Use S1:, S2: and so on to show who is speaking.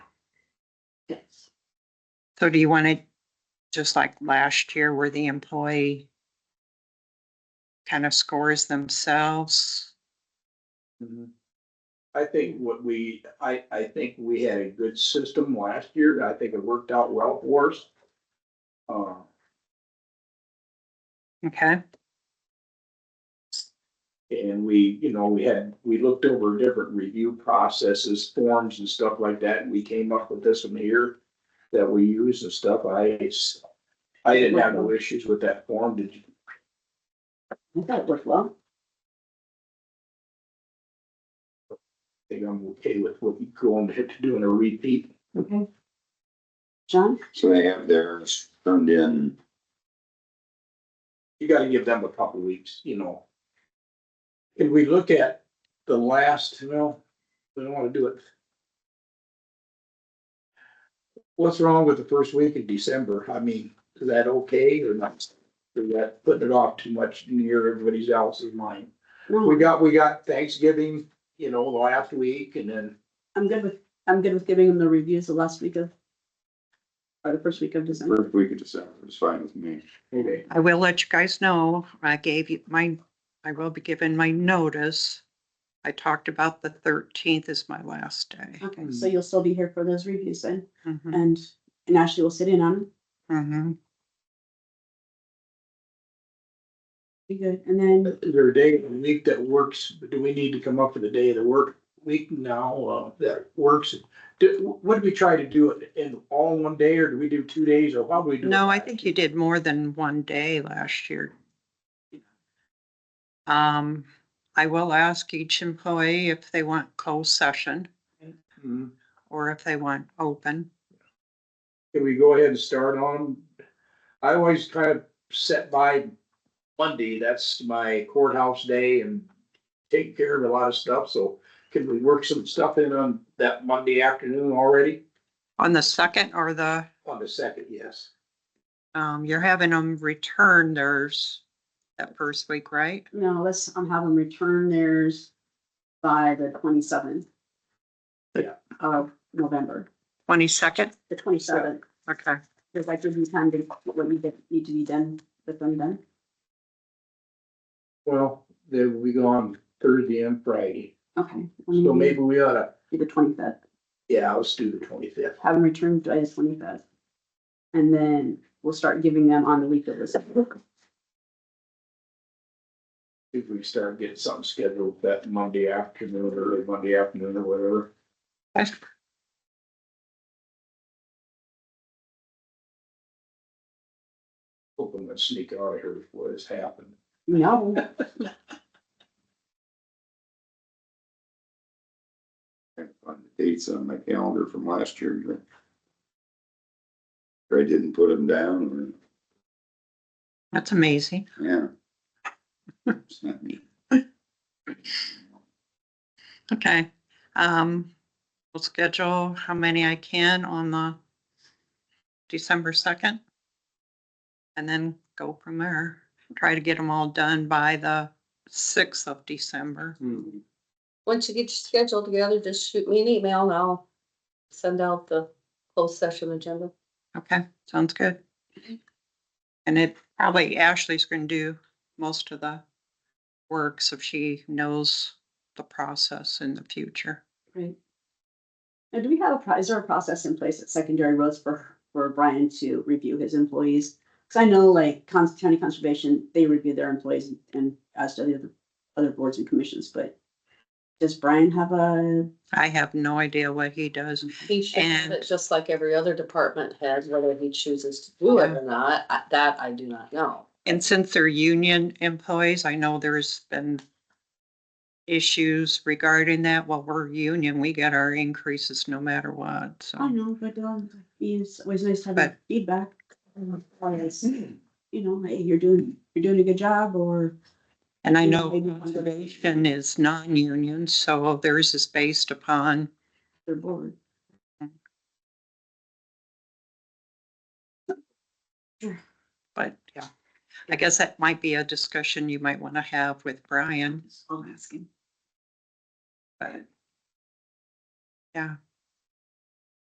S1: Yes.
S2: So do you want it just like last year where the employee kind of scores themselves?
S3: Mhm. I think what we, I, I think we had a good system last year. I think it worked out well for us. Uh,
S2: Okay,
S3: and we, you know, we had, we looked over different review processes, forms and stuff like that. and We came up with this one here that we use and stuff. I, s- I didn't have no issues with that form. Did you?
S1: I thought it worked well.
S3: I think I'm okay with what you going to do in a repeat.
S1: Okay. John?
S4: So they have theirs turned in.
S3: you gotta give them a couple weeks, you know. Can we look at the last, well, we don't wanna do it. What's wrong with the first week of December? I mean, is that okay or not? Is that putting it off too much near everybody's else's mind? We
S1: No,
S3: got, we got Thanksgiving, you know, last week and then,
S1: I'm good with, I'm good with giving them the reviews the last week of, or the first week of December.
S4: First week of December is fine with me.
S3: okay,
S2: I will let you guys know. I gave you my, I will be giving my notice. I talked about the thirteenth is my last day.
S1: Okay,
S3: Hmm.
S1: so you'll still be here for those reviews then,
S2: Mhm,
S1: and, and Ashley will sit in on them.
S2: mhm.
S1: Be good. And then,
S3: is there a day of the week that works? Do we need to come up with a day of the work week now, uh, that works? Do, what do we try to do it in all in one day or do we do two days or how do we do? it?
S2: No, I think you did more than one day last year. Um, I will ask each employee if they want closed session
S3: Hmm.
S2: or if they want open.
S3: Can we go ahead and start on? I always kind of set by Monday, that's my courthouse day and take care of a lot of stuff, so can we work some stuff in on that Monday afternoon already?
S2: On the second or the,
S3: On the second, yes.
S2: um, you're having them return theirs that first week, right?
S1: no, let's, um, have them return theirs by the twenty-seventh.
S3: Yeah.
S1: Of November,
S2: Twenty-second?
S1: the twenty-seventh,
S2: Okay.
S1: because that gives you time to, what we did- need to be done, with them done.
S3: Well, then we go on Thursday and Friday,
S1: Okay.
S3: so maybe we oughta
S1: Do the twenty-fifth.
S3: Mm-hmm. Yeah, let's do the twenty-fifth.
S1: have them returned by the twenty-fifth. And then we'll start giving them on the week of the.
S3: If we start getting something scheduled that Monday afternoon, early Monday afternoon or whatever. Hoping to sneak out of here before this happened.
S1: No,
S4: I can find the Dates on my calendar from last year, but. Or I didn't put them down,
S2: That's amazing.
S4: or, yeah. It's not me.
S2: Okay. Um, we'll schedule how many I can on the December second. And then go from there. Try to get them all done by the sixth of December.
S5: Once you get your schedule together, just shoot me an email and I'll send out the closed session agenda.
S2: Okay, sounds good. And it probably Ashley's gonna do most of the work, so she knows the process in the future.
S1: right. Now, do we have a, pro- is there a process in place at secondary roads for, for Brian to review his employees? Cause I know like Cons- county conservation, they review their employees and as do the other, other boards and commissions, but does Brian have a,
S2: I have no idea what he does.
S5: He should have
S2: And-
S5: it just like every other department head, whether he chooses to do it or not, I- that I do not know.
S2: And since they're union employees, I know there's been issues regarding that. Well, we're union, we get our increases no matter what,
S1: I don't
S2: so.
S1: know, but um, it's always nice to have
S2: But-
S1: that feedback. Always, you know, hey, you're doing, you're doing a good job or
S2: And I
S1: Yeah,
S2: know
S1: maybe one of the-
S2: conservation is non-union, so theirs is based upon
S1: they're bored.
S2: But yeah, I guess that might be a discussion you might want to have with Brian,
S1: I'll ask him.
S2: but. Yeah,